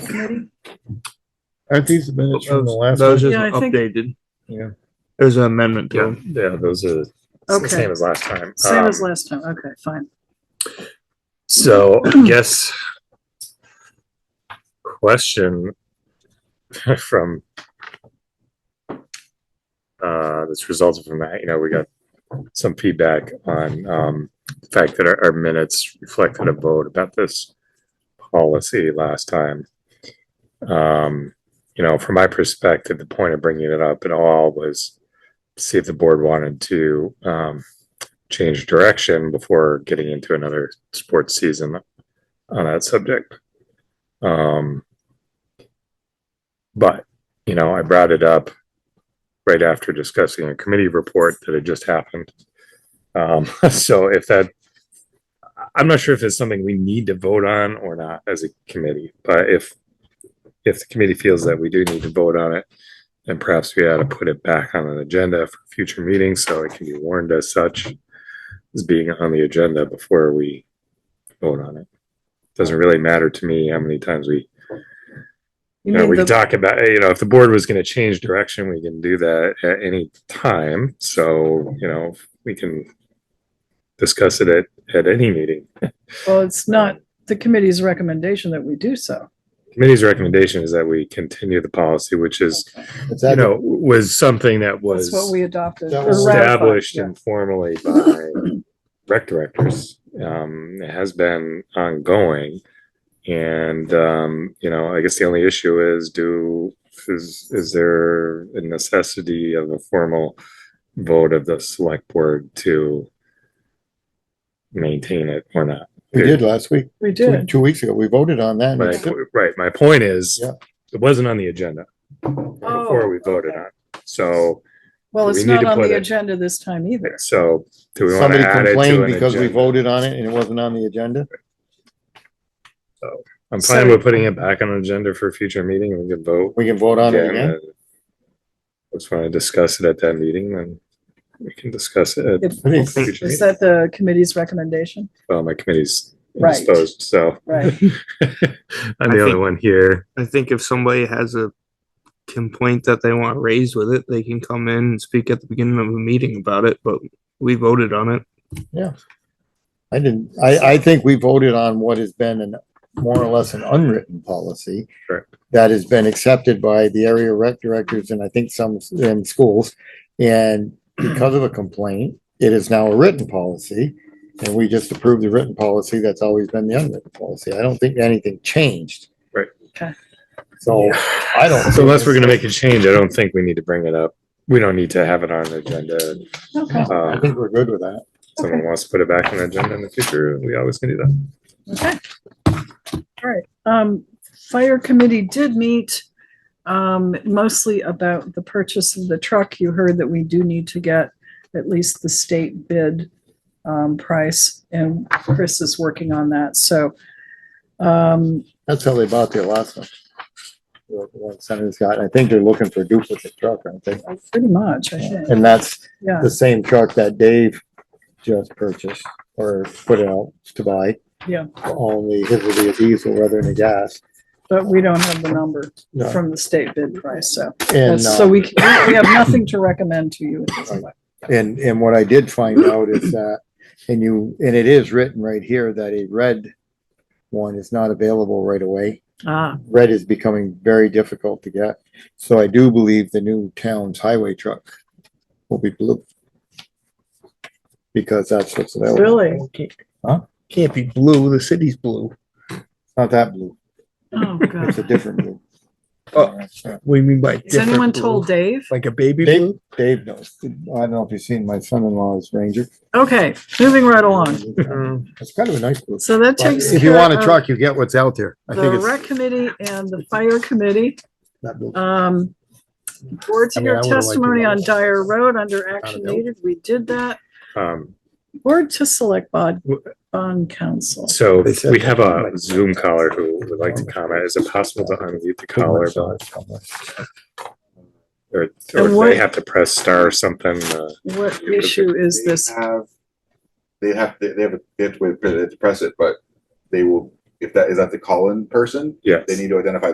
committee? Aren't these the minutes from the last? Those one? just Yeah, I think- updated. Yeah. There's an amendment to Yeah, them. yeah, those are it's the Okay, same as last time. same as Um, last time. Okay, fine. So I guess question from uh, this resulted from that, you know, we got some feedback on um, the fact that our, our minutes reflected a vote about this policy last time. Um, you know, from my perspective, the point of bringing it up at all was see if the board wanted to um, change direction before getting into another sports season on that subject. Um, but you know, I brought it up right after discussing a committee report that had just happened. Um, so if that, I- I'm not sure if it's something we need to vote on or not as a committee, but if if the committee feels that we do need to vote on it, then perhaps we ought to put it back on an agenda for future meetings so it can be warned as such as being on the agenda before we vote on it. Doesn't really matter to me how many times we, You you know, mean we the- talk about, you know, if the board was gonna change direction, we can do that at any time, so, you know, we can discuss it at, at any meeting. Well, it's not the committee's recommendation that we do so. Committee's recommendation is that we continue the policy, which is, Is you that know, was something that was That's what we adopted. That or was ratified, established yeah. informally by rec directors. Um, it has been ongoing. And, um, you know, I guess the only issue is do, is, is there a necessity of a formal vote of the select board to maintain it or not? we did last week, We two did. two weeks ago. We voted on that. and My- it's- Right, my point is, Yeah. it wasn't on the agenda before Oh, we voted okay. on. it. So, Well, it's we need not to on put the it- agenda this time either. so do we want to Somebody add it to complained an because we agenda? voted on it and it wasn't on the agenda. I'm So- fine with putting it back on the agenda for a future meeting. We can vote. We can vote on it again. and Just want to discuss it at that meeting, then we can discuss it. at If- I a think- future Is meeting. that the committee's recommendation? Well, my committee's Right. indisposed, so Right. I'm I the only think- one here. I think if somebody has a complaint that they want raised with it, they can come in and speak at the beginning of a meeting about it, but we voted on it. I didn't, I, I think we voted on what has been an, more or less an unwritten policy. Correct. That has been accepted by the area rec directors and I think some in schools. And because of a complaint, it is now a written policy. And we just approved the written policy. That's always been the unwritten policy. I don't think anything changed. Right. Okay. So I don't. So unless we're gonna make a change, I don't think we need to bring it up. We don't need to have it on the agenda. Okay, I Um, if think we're good with that. someone wants to put it back on the agenda in the future, we always can do that. okay. All right. Um, fire committee did meet, um, mostly about the purchase of the truck. You heard that we do need to get at least the state bid, um, price, and Chris is working on that, so. Um, That's how they bought their last one. The One Senator's got, I think they're looking for a duplicate truck, aren't they? pretty much, I think, And that's yeah. the same truck that Dave just purchased or put out to buy. Yeah. Only his will be a diesel rather than a gas. But we don't have the number No. from the state bid price, so, And, so uh, we, we have nothing to recommend to you at this point. and, and what I did find out is that, and you, and it is written right here that a red one is not available right away. Ah, Red is becoming very difficult to get. So I do believe the new town's highway truck will be blue. Because that's what's available. really? Can't be blue, the city's blue. It's Not that blue. Oh, It's a God. different blue. Oh. What do you mean by Has anyone told Dave? Like a baby Dave, Dave knows. I don't know if you've seen my son-in-law's Ranger. Okay, moving right along. It's kind of a nice blue. So that But takes If you care want a of truck, you get what's out there. I think The it's rec committee and the fire committee, that blue. um, board to I mean, I hear would've liked to testimony know. on Dyer Road under action needed. We did that. Um, Board to select bond, bond council. So They said- we have a Zoom caller who would like to comment. Is it possible to unmute the caller? but- Or, or And do what- they have to press star or something? uh, What issue is They this? have- They have, to- they have, a- they have to wait for it to press it, but they will, if that, is that the call-in person? Yes. They need to identify